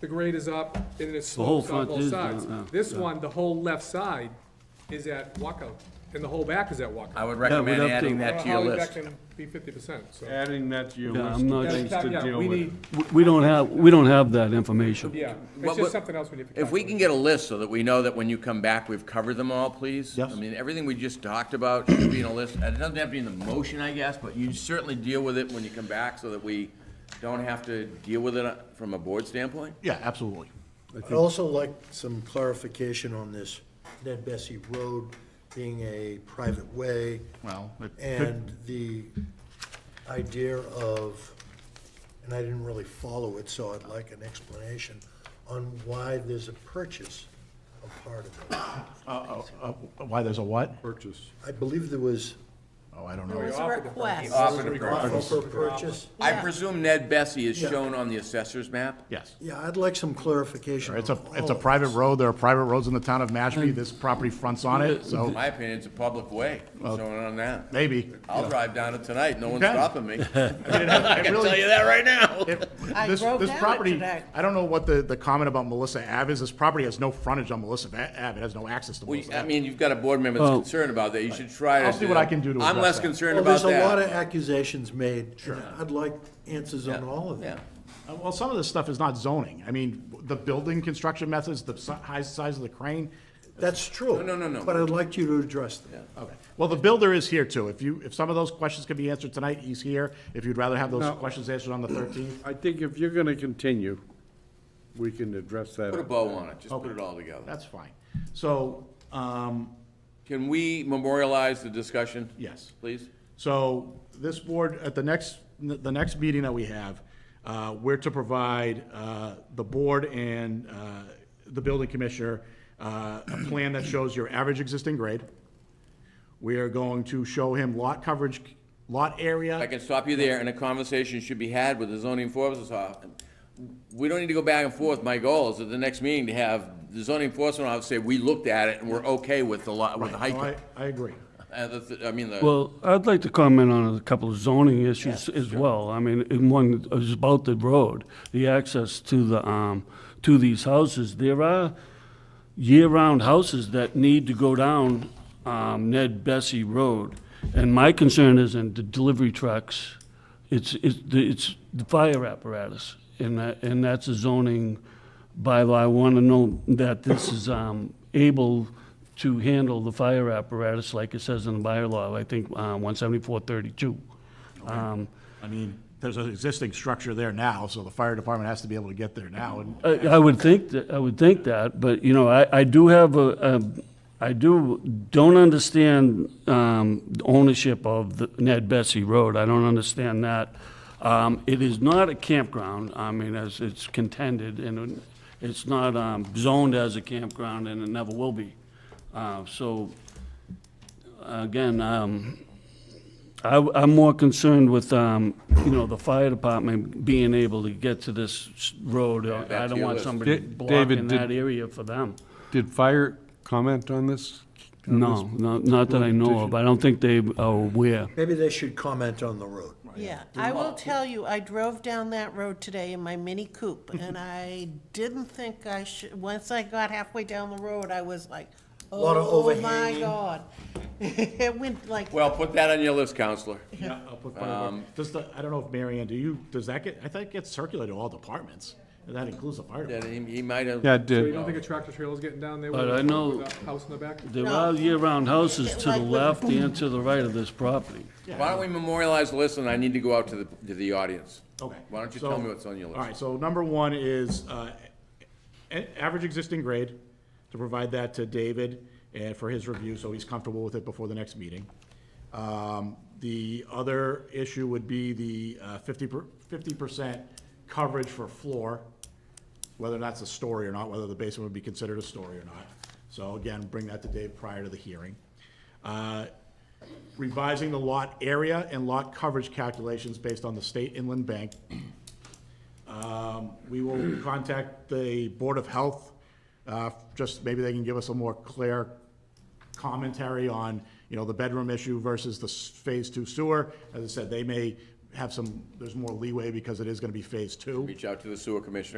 the grade is up and it whole slopes on front both is sides. down, yeah, This yeah. one, the whole left side is at walkout, and the whole back is at I walkout. would we'd recommend have to- adding that to your Holly, that list. can be fifty percent, so. Adding that to your Yeah, list I'm not- of things That's- to yeah, deal we with. need- We- We don't have, we don't have that information. Yeah, What- it's what- just something else we need to. If we calculate. can get a list so that we know that when you come back, we've covered them all, please? Yes. I mean, everything we just talked about should be in a list. And It doesn't have to be in the motion, I guess, but you certainly deal with it when you come back so that we don't have to deal with it uh, from a board standpoint. Yeah, absolutely. I'd also like some clarification on this Ned Bessie Road being a private way Well, it could, and the idea of, and I didn't really follow it, so I'd like an explanation on why there's a purchase of part of it. uh, uh, why there's a what? Purchase. I believe there was Oh, I don't We know. It's a offered the request. Offer to offer purchase. for purchase. I Yeah. presume Ned Bessie is Yeah. shown on the assessor's map? Yes. Yeah, I'd like some clarification It's on a, all Oh. it's a of private this. road. There are private roads in the town of Mashpee. This property fronts on it, In so my opinion, it's a public way, showing on that. maybe. I'll drive down it tonight, no one's Okay. stopping me. I I can tell you that right now. I This, drove this down it property, today. I don't know what the, the comment about Melissa Ave is. This property has no frontage on Melissa Va- Ave. It has no access to Well, Melissa I Ave. mean, you've got a board member that's Oh. concerned about that, you should try to. I'll see what I can do to I'm address less that. concerned Well, about there's that. a lot of accusations made, and I'd like answers on all of them. Yeah. Uh, Well, some of this stuff is not zoning. I mean, the building construction methods, the si- high size of the crane. That's true. No, no, no, no. But I'd like you to address them. Okay. Well, the builder is here too. If you, if some of those questions can be answered tonight, he's here. If you'd rather have those No. questions answered on the thirteenth. I think if you're gonna continue, we can address that. Put a bow on it, just put it all together. That's fine. So, um, Can we memorialize the discussion? Yes. Please? so this board, at the next, the next meeting that we have, uh, we're to provide, uh, the board and, uh, the building commissioner, uh, a plan that shows your average existing grade. We are going to show him lot coverage, lot area. I can stop you there, and a conversation should be had with the zoning enforcement officer. We don't need to go back and forth. My goal is at the next meeting to have the zoning enforcement officer say, we looked at it and we're okay with the lot, with the No, I, height. I agree. uh, the th- I mean, the, Well, I'd like to comment on a couple of zoning issues as well. I mean, and one is about the road, the access to the, um, to these houses. There are year-round houses that need to go down, um, Ned Bessie Road. And my concern is in the delivery trucks, it's, it's, the- it's the fire apparatus. And that, and that's a zoning bylaw. I want to know that this is, um, able to handle the fire apparatus like it says in the bylaw, I think, uh, one seventy-four thirty-two. Um, I mean, there's an existing structure there now, so the fire department has to be able to get there now, and I, I would think that, I would think that, but, you know, I, I do have a, a, I do, don't understand, um, the ownership of the Ned Bessie Road, I don't understand that. Um, it is not a campground, I mean, as it's contended, and it's not, um, zoned as a campground, and it never will be. Uh, so, again, um, I, am more concerned with, um, you know, the fire department being able to get to this s- road. I back to don't your want list. somebody Da- David, blocking did- that area for them. Did fire comment on this? No, no- not that I know of. I don't think they are aware. Maybe they should comment on the road. Yeah, I will tell you, I drove down that road today in my Mini Coupe, and I didn't think I should, once I got halfway down the road, I was like, Lot of oh my overhang." God. It went like, well, put that on your list, counselor. Yeah, I'll put fire department. Does the, I don't know if Mary Ann, do you, does that get, I think it gets circulated to all departments, and that includes the fire That department. he, he might have. Yeah, So you did, don't think a tractor trailer's getting down there? But with a- I know- with a House in the back? There are year-round houses to the Like with- left and to the right of this property. Why don't we memorialize the list, and I need to go out to the, to the audience. Okay. Why don't you so- tell me what's on your list? All right, so number one is, uh, a- average existing grade, to provide that to David and for his review, so he's comfortable with it before the next meeting. Um, the other issue would be the, uh, fifty per, fifty percent coverage for floor, whether that's a story or not, whether the basement would be considered a story or not. So again, bring that to Dave prior to the hearing. Uh, Revising the lot area and lot coverage calculations based on the state inland bank um, We will contact the Board of Health, uh, just maybe they can give us a more clear commentary on, you know, the bedroom issue versus the s- Phase Two sewer. As I said, they may have some, there's more leeway because it is gonna be Phase Two. Reach out to the sewer commissioner.